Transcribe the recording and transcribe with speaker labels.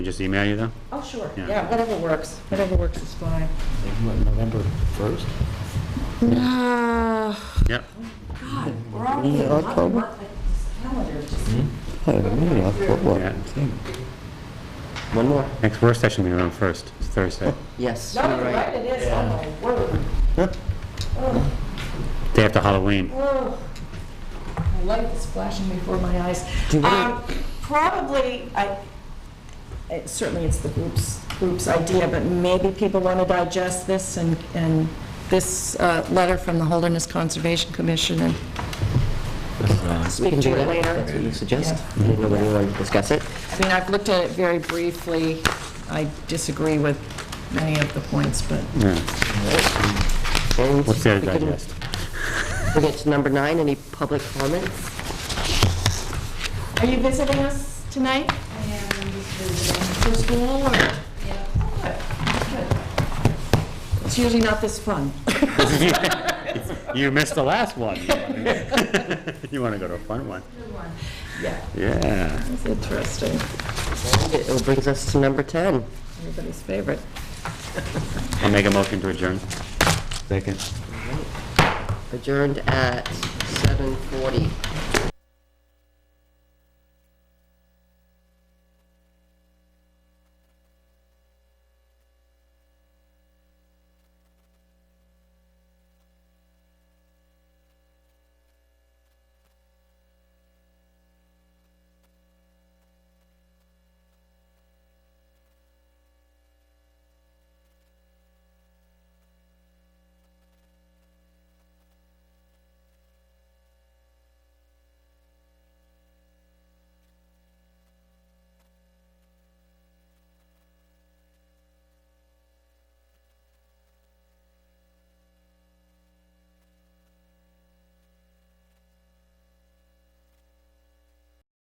Speaker 1: Just email you them?
Speaker 2: Oh, sure,
Speaker 1: Yeah.
Speaker 2: yeah, whatever works, whatever works is fine.
Speaker 3: What, November 1st?
Speaker 2: Uh,
Speaker 1: Yep.
Speaker 2: God, we're already in
Speaker 4: Ah. October?
Speaker 2: October. This calendar is just-
Speaker 4: I don't know, I thought, what,
Speaker 1: Yeah.
Speaker 3: One more.
Speaker 1: Next work session will be on first, it's Thursday.
Speaker 4: Yes,
Speaker 2: No, you're right, it is, oh my word. Oh,
Speaker 1: Day after Halloween.
Speaker 2: oh. My light is flashing before my eyes.
Speaker 4: Do we-
Speaker 2: Um, Probably, I, it- certainly it's the group's, group's idea, but maybe people want to digest this and, and this uh, letter from the Holderness Conservation Commission and
Speaker 4: We
Speaker 2: speak
Speaker 4: can do
Speaker 2: to
Speaker 4: that.
Speaker 2: it later.
Speaker 4: That's what you suggest. I didn't know whether you wanted to discuss it.
Speaker 2: I mean, I've looked at it very briefly. I disagree with many of the points, but
Speaker 1: Yeah.
Speaker 4: And
Speaker 1: What's there to
Speaker 4: we can-
Speaker 1: digest?
Speaker 4: We get to number nine, any public comments?
Speaker 2: are you visiting us tonight? For school or? It's usually not this fun.
Speaker 1: You missed the last one. You want to go to a fun one?
Speaker 2: Yeah,
Speaker 1: Yeah.
Speaker 2: it's interesting.
Speaker 4: It brings us to number 10.
Speaker 2: Everybody's favorite.
Speaker 1: I'll make a motion to adjourn. Second.
Speaker 4: adjourned at 7:40.